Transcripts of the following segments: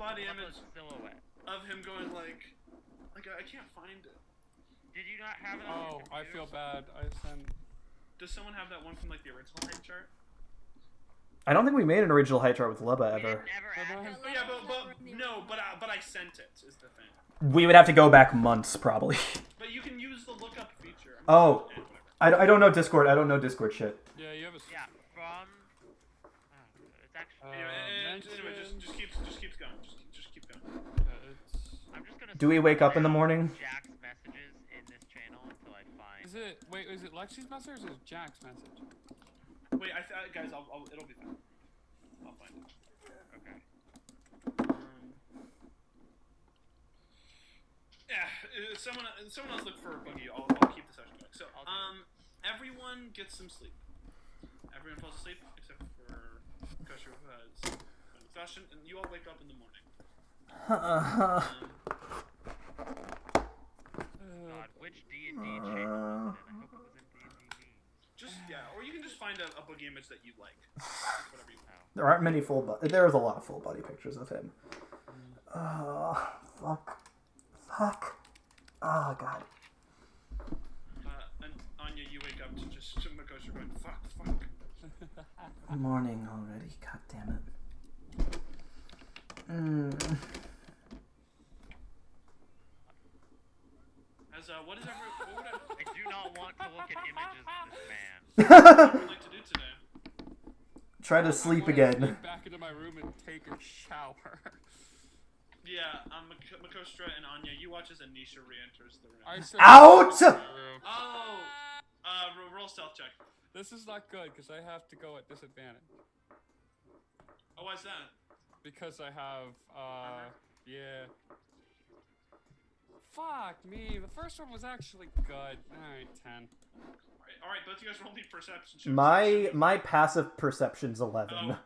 body What image was silhouette. of him going like, like I can't find it. Did you not have it on Oh, your I feel computer? bad. I sent. Does someone have that one from like the original height chart? Oh, I don't think we made an original height chart with Lubba We ever. didn't ever But ask I- him. Oh, yeah, but but no, but I, but I sent it is the thing. We would have to go back months probably. But you can use the lookup feature. I'm eh, Oh. whatever. I, I don't know Discord. I don't know Discord shit. Yeah, you have a. s- Yeah, from. Oh, it's actually. Uh, Anyway, eh, eh, anyway, just mentions- just keep just keeps going. Just just keep going. yeah, it's- I'm just gonna. Do we scroll wake up in the down morning? Jack's messages in this channel until I find. Is it wait? Is it Lexi's message or is it Jack's message? Wait, I th- guys, I'll, I'll it'll be fine. I'll find it. Okay. Um, yeah, uh, someone uh, someone else look for Boogie. I'll, I'll keep the session going. So, I'll do um, everyone gets some sleep. Everyone falls asleep except for Kosher, who has an exhaustion, and you all wake up in the morning. Um, Uh, God, which D and D channel was it in? I hope it was in D and D just yeah, or you can just find a, a Boogie image that you like. It's Whatever you want. There aren't many full body. There is a lot of full body pictures of him. Oh, fuck. Fuck. Oh, God. Uh, and Anya, you wake up to just to Makosha going fuck, fuck. Morning already. God damn it. Mm. As uh, what is every what would everyone I do not want to look at images of this man. like to do today? Try to I sleep wanna again. sneak Back into my room and take a shower. Yeah, um, Mak- Makostra and Anya, you watch as Anisha re-enters the room. I said- Out! Oh, uh, ro- roll stealth check. This is not good because I have to go at disadvantage Oh, why's that? because I have uh yeah. Fuck me. The first one was actually good. All right, ten. All right, all right, both you guys roll me perception checks. My my passive perception's eleven. Oh,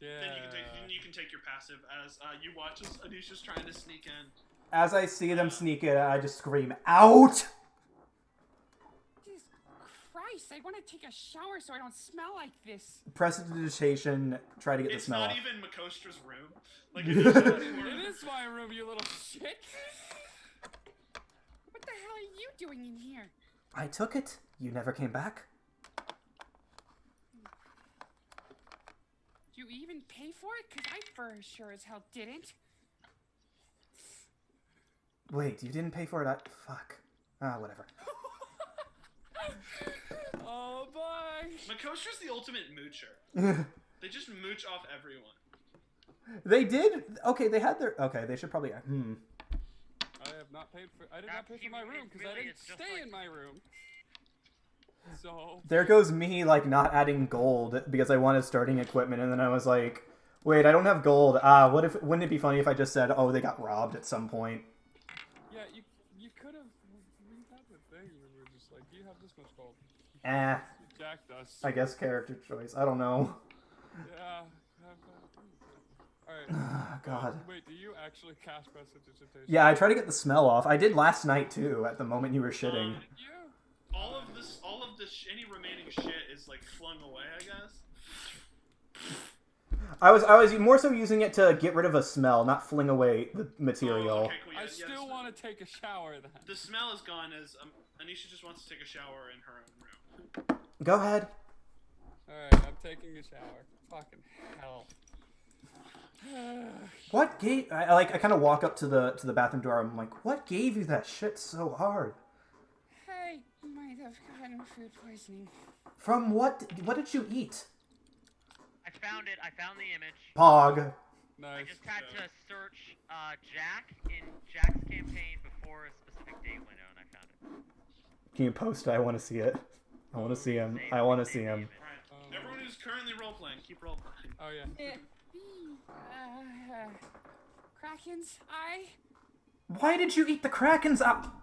Yeah. then you can take then you can take your passive as uh, you watch as Anisha's trying to sneak in. As I see them sneak in, I just scream, "Out!" Jesus Christ, I want to take a shower so I don't smell like this. Press digitation. Try to get the It's smell not off. even Makostra's room. Like Anisha's It room. is my room, you little shit. What the hell are you doing in here? I took it. You never came back. Do you even pay for it? Because I for sure as hell didn't. Wait, you didn't pay for it. I... Fuck. Ah, whatever. Oh boy. Makostra's the ultimate moocher. They just mooch off everyone. they did. Okay, they had their. Okay, they should probably. Hmm. I have not paid for. I did That not pay for my TV room is because I really- didn't it's just stay like- in my room. So There goes me like not adding gold because I wanted starting equipment, and then I was like, "Wait, I don't have gold. Ah, what if? Wouldn't it be funny if I just said, "Oh, they got robbed at some point." yeah, you you could have. We had the thing where we were just like, you have this much gold. Eh, You jacked us. I guess character choice. I don't know. Yeah. Alright. Oh, God. Wait, do you actually cast prestidigitation? Yeah, I try to get the smell off. I did last night too. At the moment you were shitting. Um, You? all of this, all of this, any remaining shit is like flung away. I guess. I was I was more so using it to get rid of a smell, not fling away the material. Oh, okay, cool. Yeah, I yeah, still so- want to take a shower then. The smell is gone as um, Anisha just wants to take a shower in her own room. Go ahead. Alright, I'm taking a shower. Fucking hell. What gave I I, like I kind of walk up to the to the bathroom door. I'm like, what gave you that shit so hard? I might have gotten food poisoning. From what what did you eat? I found it. I found the image. Pog. I Nice. just had to search uh, Jack in Jack's campaign before a specific date window, and I found it. Can you post? it? I want to see it. I want to see him. I want to see him. All right. Everyone who's currently role playing, keep role playing. Oh yeah. Uh, uh, Kraken's eye? Why did you eat the Kraken's up?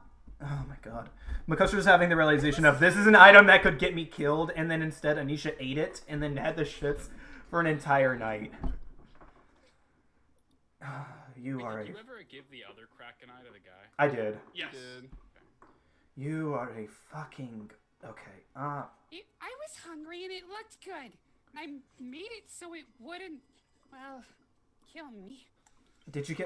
Oh my god. Makostra's having the realization of this is an item that could get me killed, and then instead Anisha ate it and then had the shits for an entire night. you are a Did you ever give the other Kraken eye to the guy? I did. Yes. Dude. You are a fucking okay. Ah, It, I was hungry and it looked good. And I made it so it wouldn't, well, kill me. did you get